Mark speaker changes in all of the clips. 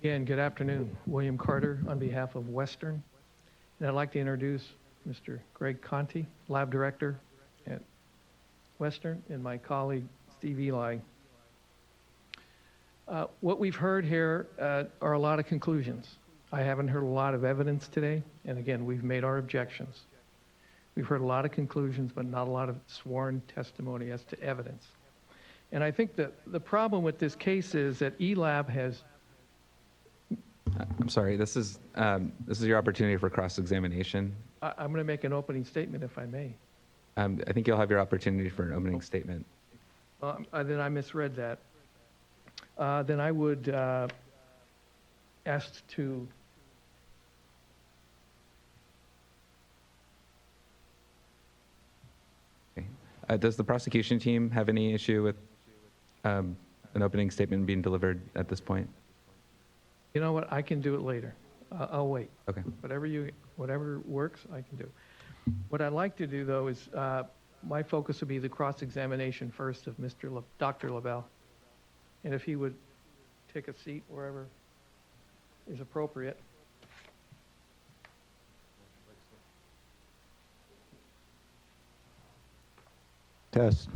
Speaker 1: Again, good afternoon. William Carter on behalf of Western. And I'd like to introduce Mr. Greg Conti, Lab Director at Western, and my colleague Steve Eli. Uh, What we've heard here uh, are a lot of conclusions. I haven't heard a lot of evidence today, and again, we've made our objections. We've heard a lot of conclusions, but not a lot of sworn testimony as to evidence. And I think that the problem with this case is that ELAB has
Speaker 2: I'm sorry, this is, um, this is your opportunity for cross-examination.
Speaker 1: I- I'm going to make an opening statement if I may.
Speaker 2: Um, I think you'll have your opportunity for an opening statement.
Speaker 1: Um, uh, Then I misread that. Uh, Then I would uh, ask to,
Speaker 2: Uh, does the prosecution team have any issue with, um, an opening statement being delivered at this point?
Speaker 1: you know what, I can do it later. Uh, I'll wait.
Speaker 2: Okay.
Speaker 1: Whatever you, whatever works, I can do. What I'd like to do, though, is uh, my focus would be the cross-examination first of Mr., La- Dr. LaBelle. And if he would take a seat wherever is appropriate.
Speaker 3: Test.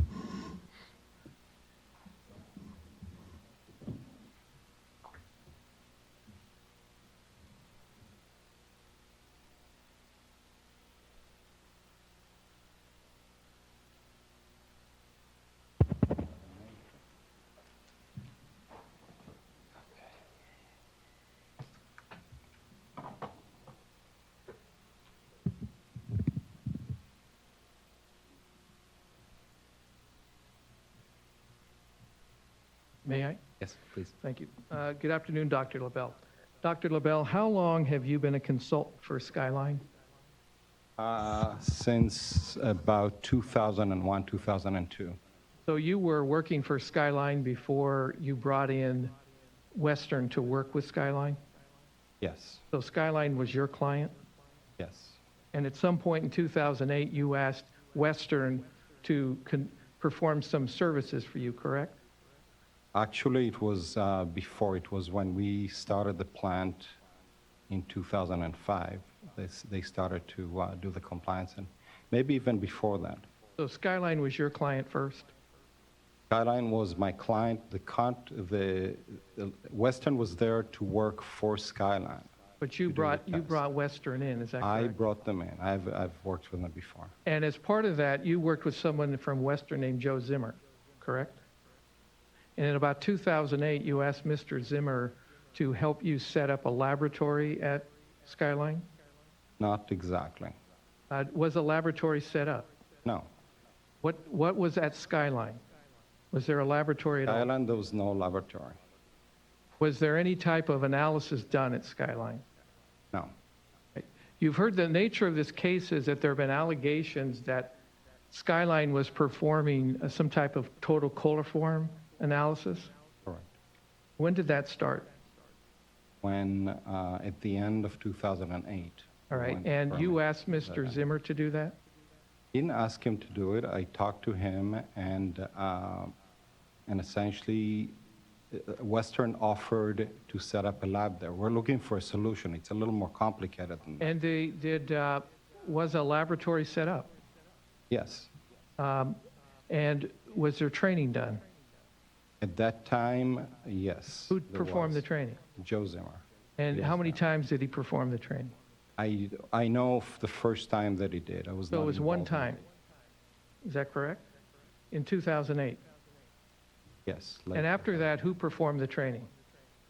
Speaker 1: May I?
Speaker 2: Yes, please.
Speaker 1: Thank you. Uh, Good afternoon, Dr. LaBelle. Dr. LaBelle, how long have you been a consultant for Skyline?
Speaker 3: Uh, Since about 2001, 2002.
Speaker 1: So you were working for Skyline before you brought in Western to work with Skyline?
Speaker 3: Yes,
Speaker 1: So Skyline was your client?
Speaker 3: yes,
Speaker 1: And at some point in 2008, you asked Western to con- perform some services for you, correct?
Speaker 3: Actually, it was uh, before, it was when we started the plant in 2005. They s- They started to uh, do the compliance, and maybe even before that.
Speaker 1: So Skyline was your client first?
Speaker 3: Skyline was my client, the con- the, the- Western was there to work for Skyline.
Speaker 1: But you
Speaker 3: did it
Speaker 1: brought, you
Speaker 3: fast.
Speaker 1: brought Western in, is that
Speaker 3: I
Speaker 1: correct?
Speaker 3: brought them in, I've, I've worked with them before.
Speaker 1: And as part of that, you worked with someone from Western named Joe Zimmer, correct? And in about 2008, you asked Mr. Zimmer to help you set up a laboratory at Skyline?
Speaker 3: Not exactly,
Speaker 1: Uh, Was a laboratory set up?
Speaker 3: no.
Speaker 1: What, what was at Skyline? Was there a laboratory at all?
Speaker 3: Skyline, there was no laboratory,
Speaker 1: Was there any type of analysis done at Skyline?
Speaker 3: no.
Speaker 1: You've heard the nature of this case is that there have been allegations that Skyline was performing uh, some type of total coliform analysis.
Speaker 3: Correct.
Speaker 1: When did that start?
Speaker 3: When, uh, at the end of 2008.
Speaker 1: All right,
Speaker 3: when the
Speaker 1: and you
Speaker 3: permit-
Speaker 1: asked Mr. Zimmer to do that?
Speaker 3: Didn't ask him to do it. I talked to him and, uh, and essentially uh, Western offered to set up a lab there. We're looking for a solution. It's a little more complicated than that.
Speaker 1: And they did, uh, was a laboratory set up?
Speaker 3: Yes.
Speaker 1: And was there training done?
Speaker 3: At that time, yes.
Speaker 1: Who
Speaker 3: there
Speaker 1: performed the
Speaker 3: was.
Speaker 1: training?
Speaker 3: Joe Zimmer.
Speaker 1: And
Speaker 3: Yes,
Speaker 1: how many
Speaker 3: ma'am.
Speaker 1: times did he perform the training?
Speaker 3: I, I know of the first time that he did. I was
Speaker 1: So
Speaker 3: not
Speaker 1: it was one
Speaker 3: involved in
Speaker 1: time?
Speaker 3: it.
Speaker 1: Is that correct? In 2008?
Speaker 3: Yes.
Speaker 1: And
Speaker 3: later.
Speaker 1: after that, who performed the training?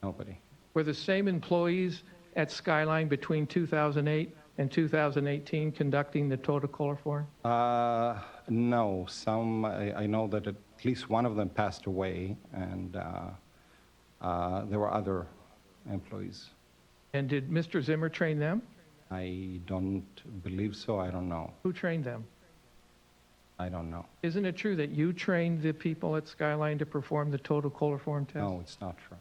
Speaker 3: Nobody.
Speaker 1: Were the same employees at Skyline between 2008 and 2018 conducting the total coliform?
Speaker 3: Uh, no, some, I, I know that at least one of them passed away, and uh, uh, there were other employees.
Speaker 1: And did Mr. Zimmer train them?
Speaker 3: I don't believe so, I don't know,
Speaker 1: Who trained them?
Speaker 3: I don't know.
Speaker 1: Isn't it true that you trained the people at Skyline to perform the total coliform test?
Speaker 3: No, it's not true.